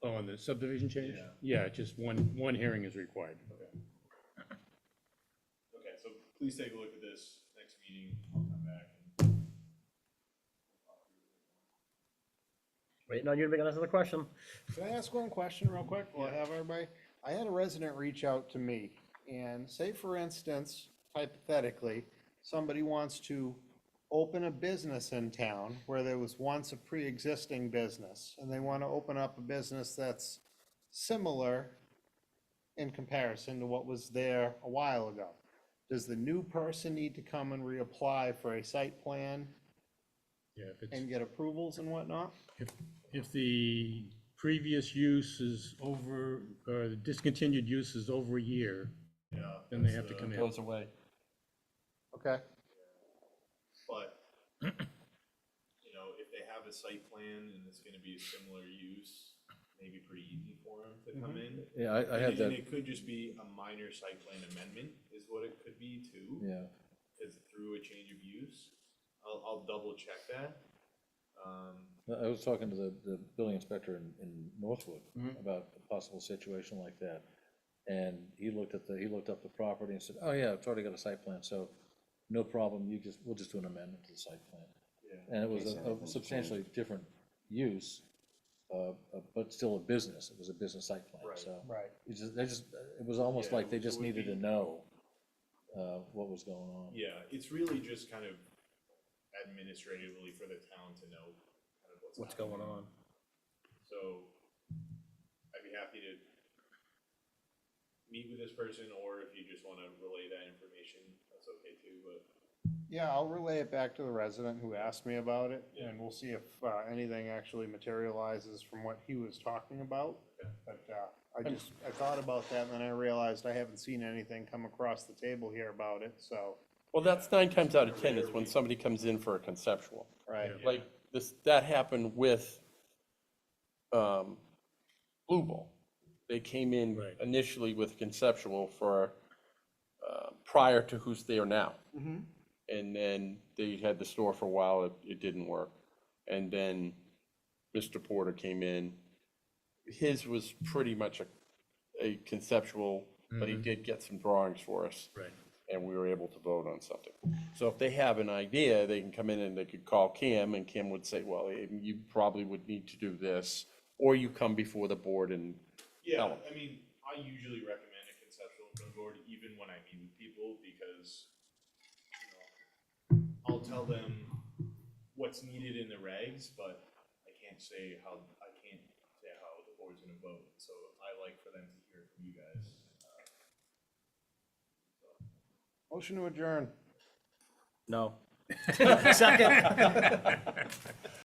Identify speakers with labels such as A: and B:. A: Oh, subdivision change?
B: Yeah.
A: Yeah, just one, one hearing is required.
B: Okay, so please take a look at this next meeting, I'll come back. and-
C: Waiting on you to make another question.
D: Can I ask one question real quick? Will I have everybody? I had a resident reach out to me and say, for instance, hypothetically, somebody wants to open a business in town where there was once a pre-existing business and they want to open up a business that's similar in comparison to what was there a while ago. Does the new person need to come and reapply for a site plan
A: Yeah, if it's,
D: and get approvals and whatnot?
A: if, if the previous use is over, or the discontinued use is over a year,
B: Yeah.
A: then they
B: that's
A: have to
B: the-
A: come in.
E: goes away.
D: Okay.
B: But, you know, if they have a site plan and it's gonna be a similar use, maybe pretty easy for them to come in.
E: Yeah, Mm-hmm. I, I had
B: And- And
E: that,
B: it could just be a minor site plan amendment is what it could be too.
E: yeah.
B: Is through a change of use. I'll, I'll double check that. Um,
E: I- I was talking to the, the building inspector in, in Northwood
B: Mm-hmm.
E: about a possible situation like that. And he looked at the, he looked up the property and said, oh yeah, I've already got a site plan, so no problem, you just, we'll just do an amendment to the site plan.
B: yeah,
E: And it was
F: case
E: a- a
F: anything's
E: substantially different use, uh, uh, but still a business, it was a business site plan,
B: Right.
E: so.
D: Right.
E: It just, they just, it was almost
B: Yeah,
E: like they
B: so
E: just
B: it would
E: needed to
B: be-
E: know, uh, what was going
A: Um,
E: on.
B: yeah, it's really just kind of administratively for the town to know kind of what's.
A: What's going
B: happening.
A: on?
B: So I'd be happy to meet with this person, or if you just wanna relay that information, that's okay too, but.
D: Yeah, I'll relay it back to the resident who asked me about it,
B: Yeah.
D: and we'll see if uh, anything actually materializes from what he was talking about.
B: Okay.
D: But uh, I just, I thought about that, and then I realized I haven't seen anything come across the table here about it, so,
F: Well, that's nine times out of 10 is when somebody comes in for a conceptual.
D: right,
F: Like this, that happened with um, Blue Bowl. They came in
A: Right.
F: initially with conceptual for, uh, prior to who's there now. And then they had the store for a while, it, it didn't work. And then Mr. Porter came in. His was pretty much a, a conceptual, but he did get some drawings for us
A: Right.
F: and we were able to vote on something. So if they have an idea, they can come in and they could call Kim, and Kim would say, well, eh, you probably would need to do this, or you come before the board and,
B: Yeah,
F: Tell 'em.
B: I mean, I usually recommend a conceptual for the board, even when I meet with people, because, you know, I'll tell them what's needed in the regs, but I can't say how, I can't say how the board's gonna vote, so I like for them to hear from you guys. Uh,
D: motion to adjourn.
E: No.
C: Second.